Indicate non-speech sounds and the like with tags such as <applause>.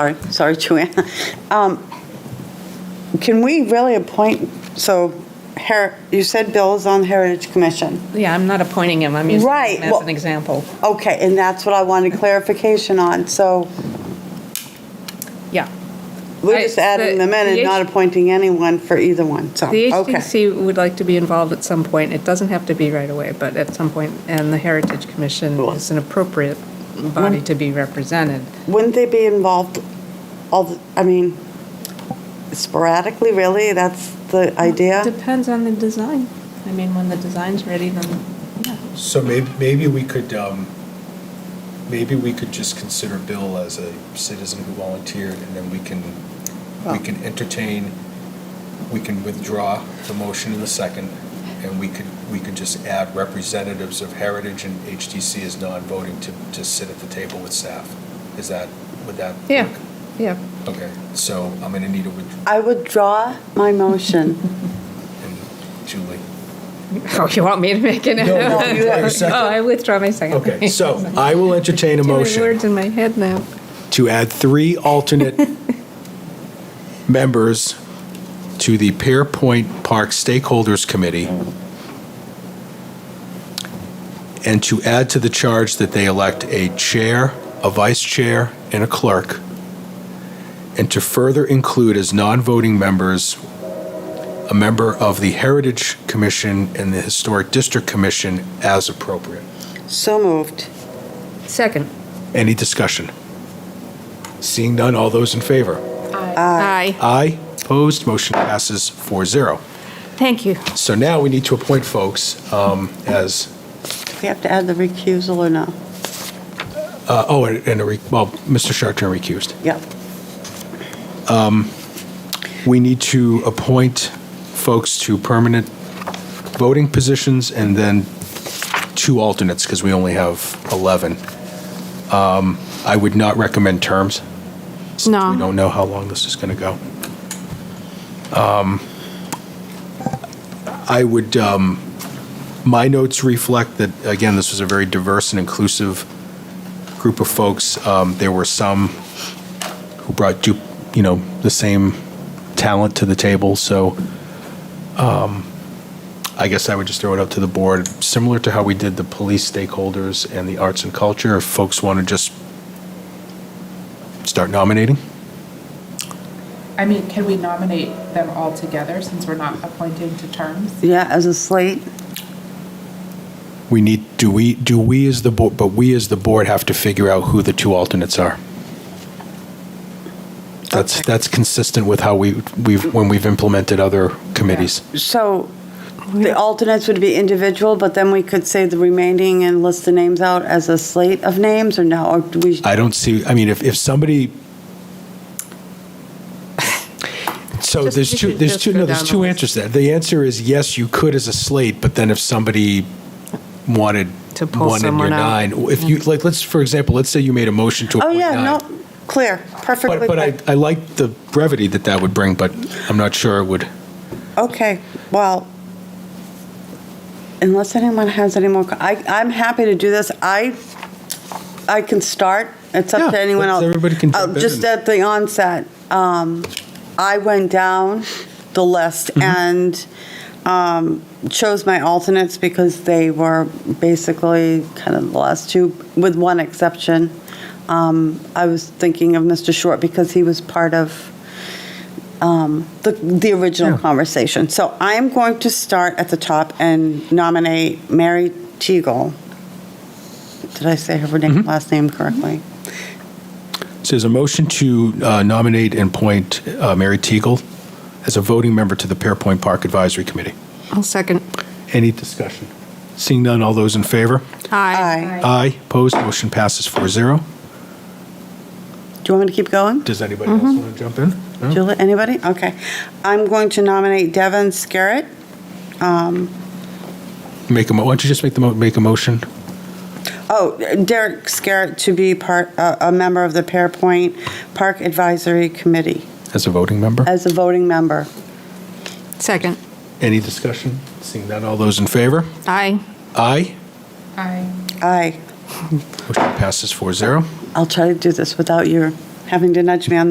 Sorry, sorry, Joanne. Um, Can we really appoint, so, Her- you said Bill is on the Heritage Commission. Yeah, I'm not appointing him, I'm using Right, him as well- an example. Okay, and that's what I wanted clarification on, so Yeah. we're I- just adding the- them in and the not H- appointing anyone for either one, so, The Oh, okay. HDC would like to be involved at some point. It doesn't have to be right away, but at some point, and the Heritage Commission Cool. is an appropriate body to be represented. Wouldn't they be involved, all, the- I mean, sporadically, really? That's the idea? Depends on the design. I mean, when the design's ready, then, yeah. So maybe, maybe we could, um, maybe we could just consider Bill as a citizen who volunteered, and then we can, we can entertain, we can withdraw the motion in the second, and we could, we could just add representatives of Heritage and HTC as non-voting to, to sit at the table with staff. Is that, would that? Yeah, work? yeah. Okay, so I'm gonna need a, with- I withdraw my motion. and Julie. <laughs> Oh, you want me to make it? No, no, you have a second. <laughs> Oh, I withdraw my second. <laughs> Okay, so I will entertain a Too many motion. words in my head now. to add three alternate members to the Pearpoint Park Stakeholders Committee and to add to the charge that they elect a chair, a vice chair, and a clerk, and to further include as non-voting members a member of the Heritage Commission and the Historic District Commission as appropriate. So moved. Second. Any discussion? Seeing none, all those in favor? Aye. Aye. Opposed, motion passes 4-0. Thank you. So now we need to appoint folks um, as, Do we have to add the recusal or no? uh, oh, and and a, re- well, Mr. Sharpton recused. Yep. We need to appoint folks to permanent voting positions and then two alternates, because we only have 11. Um, I would not recommend terms. since No. We don't know how long this is going to go. Um, I would, um, my notes reflect that, again, this was a very diverse and inclusive group of folks. Um, There were some who brought, du- you know, the same talent to the table, so um, I guess I would just throw it up to the board, similar to how we did the police stakeholders and the arts and culture, if folks want to just start nominating? I mean, can we nominate them all together since we're not appointing to terms? Yeah, as a slate? We need, do we, do we as the board, but we as the board have to figure out who the two alternates are. That's, Okay. that's consistent with how we, we've, when we've implemented other committees. So the alternates would be individual, but then we could say the remaining and list the names out as a slate of names, or no? Or do we, I don't see, I mean, if, if somebody. So Just- there's you two, could there's just two, go no, down there's the two list. answers there. The answer is yes, you could as a slate, but then if somebody wanted To pull one in your someone out. nine, if you, like, let's, for example, let's say you made a motion to oh, appoint yeah, no, nine. clear, perfectly. But, but I, clear. I like the brevity that that would bring, but I'm not sure it would. Okay, well, unless anyone has any more, I, I'm happy to do this. I, I can start. It's up to Yeah, anyone else. everybody can Uh, jump in Just and- at the onset, um, I went down the list Mm-hmm. and um, chose my alternates because they were basically kind of the last two, with one exception. Um, I was thinking of Mr. Short because he was part of um, the, the original Yeah. conversation. So I'm going to start at the top and nominate Mary Teagle. Did I say her name, last name correctly? So there's a motion to uh, nominate and appoint uh, Mary Teagle as a voting member to the Pearpoint Park Advisory Committee. I'll second. Any discussion? Seeing none, all those in favor? Aye. Aye. Opposed, motion passes 4-0. Do you want me to keep going? Does anybody else want to jump in? No? Julie, anybody? Okay. I'm going to nominate Devin Scarrett. Make a, mo- why don't you just make the, mo- make a motion? Oh, Derek Scarrett to be part, a a member of the Pearpoint Park Advisory Committee As a voting member? as a voting member. Second. Any discussion? Seeing none, all those in favor? Aye. Aye. I Aye. Motion passes 4-0. I'll try to do this without your having to nudge me on